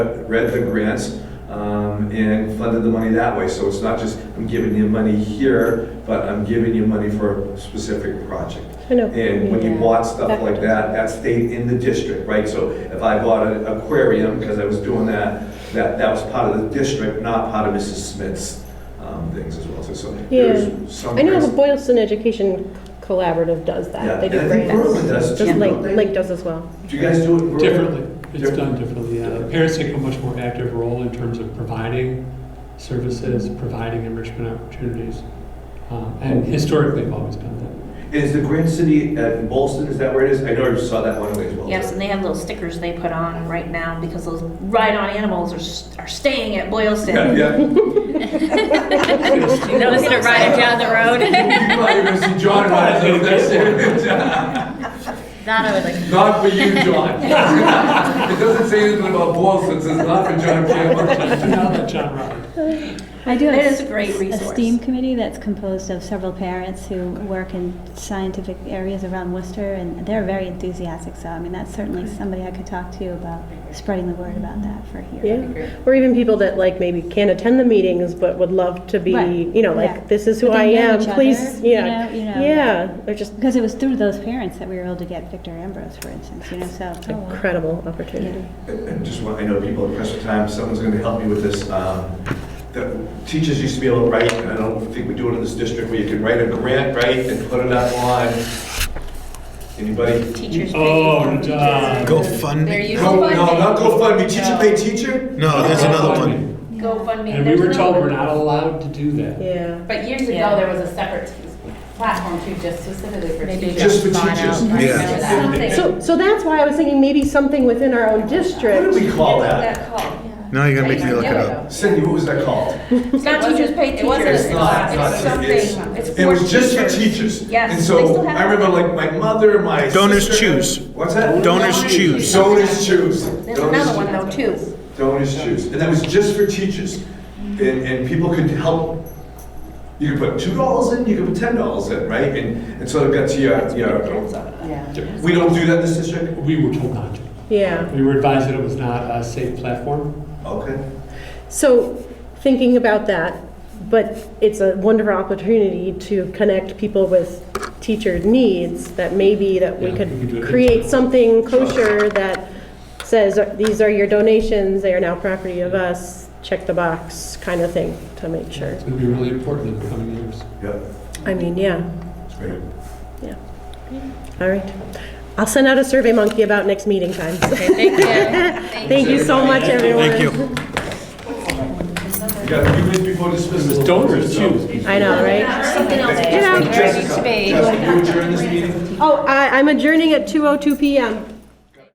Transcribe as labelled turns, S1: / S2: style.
S1: read the grants um, and funded the money that way. So it's not just, I'm giving you money here, but I'm giving you money for a specific project.
S2: I know.
S1: And when you
S3: Yeah.
S1: bought stuff like that, that stayed in the district, right? So if I bought an aquarium, because I was doing that, that, that was part of the district, not part of Mrs. Smith's um, things as well. So- So there's some.
S2: I know the Boylston Education Collaborative does
S1: Yeah,
S2: that. They do
S1: and I think
S2: grants.
S1: Berlin does too,
S2: Just Lake,
S1: don't they?
S2: Lake does as well.
S1: Do you guys do it? in rural?
S4: Differently, it's
S1: Different-
S4: done differently, yeah. Parents take a much more active role in terms of providing services, providing enrichment opportunities. Um, And historically, they've always done that.
S1: Is the Grand City at Bolston, is that where it is? I know you saw that one way as well.
S3: Yes, and they have little stickers they put on right now because those ride-on animals are, s- are staying at
S1: Yeah,
S3: Boylston.
S1: yeah.
S3: You know, it's gonna ride them down the road.
S1: You probably gonna see John ride it, that's it.
S3: That I would like.
S1: Not for you, John. It doesn't say anything about Boylston, it says not for John Campbell.
S4: Now that John Roberts.
S5: I do have
S3: It is a great
S5: A
S3: resource.
S5: STEAM committee that's composed of several parents who work in scientific areas around Worcester, and they're very enthusiastic, so I mean, that's certainly somebody I could talk to about spreading the word about that for here.
S2: Yeah. Or even people that like maybe can't attend the meetings but would love to be,
S5: Right.
S2: you know,
S5: Yeah.
S2: like, this is who
S5: But
S2: I
S5: they know
S2: am,
S5: each other,
S2: please.
S5: you
S2: Yeah.
S5: know- you know.
S2: Yeah. They're just
S5: Because it was through those parents that we were able to get Victor Ambrose, for instance, you know, so.
S2: incredible opportunity.
S1: And just want, I know people are pressed for time, someone's gonna help me with this. Um, the Teachers used to be able to write, and I don't think we do it in this district, where you could write a grant, right, and put it online. Anybody?
S3: Teachers.
S4: Oh, John.
S3: There
S6: GoFundMe?
S3: you
S1: No,
S3: go.
S1: no, not GoFundMe, teacher pay teacher?
S6: No, there's another one.
S3: GoFundMe.
S4: And we
S3: There's
S4: were told
S3: another
S4: we're
S3: one.
S4: not allowed to do that.
S2: Yeah.
S7: But years
S3: Yeah.
S7: ago, there was a separate t- platform too, just specifically for
S3: Maybe
S7: teachers.
S1: Just for
S3: Gone out,
S1: teachers.
S3: like,
S6: Yeah.
S3: for that.
S7: Something.
S2: So, so that's why I was thinking maybe something within our own
S1: What do
S2: district.
S1: we call that?
S7: That called.
S6: Now you're gonna make me look it up.
S1: Cindy, what was that called?
S3: It's not
S7: It
S3: teachers
S7: wasn't-
S3: pay
S7: it wasn't
S3: teachers.
S7: a class,
S3: It's
S7: it's
S1: not- it's-
S3: something, it's
S1: It
S3: for
S1: was just for
S3: teachers.
S1: teachers.
S3: Yes,
S1: And
S3: they still
S1: so
S3: have
S1: I
S3: it.
S1: remember like my mother, my
S6: Donors
S1: sister-
S6: choose.
S1: What's that?
S6: Donors choose.
S1: Donors choose.
S3: There's
S1: Donors
S3: another one
S1: choose.
S3: though too.
S1: Donors choose. And that was just for teachers. And, and people could help. You could put two dollars in, you could put ten dollars in, right? And, and so it got to your, your,
S7: Yeah.
S1: we don't do that in this district?
S4: We were told not to.
S2: Yeah.
S4: We were advised that it was not a safe platform.
S1: Okay.
S2: So thinking about that, but it's a wonderful opportunity to connect people with teacher needs that maybe that we
S4: Yeah, we could do
S2: could
S4: it.
S2: create something kosher that says, these are your donations, they are now property of us, check the box kind of thing to make sure.
S4: It's going to be really important in the coming years.
S1: Yep,
S2: I mean, yeah,
S1: that's great.
S2: all right. I'll send out a survey monkey about next meeting time.
S3: Thank you.
S2: Thank you so much, everyone.
S6: Thank you.
S1: You got a few minutes before dismissal.
S4: It was donors choose.
S2: I know, right?
S3: Something else.
S2: Get out.
S3: Where it needs to
S1: Jessica,
S3: be.
S1: Jessica, you adjourn this meeting?
S2: Oh, I- I'm adjourning at 2:02 PM.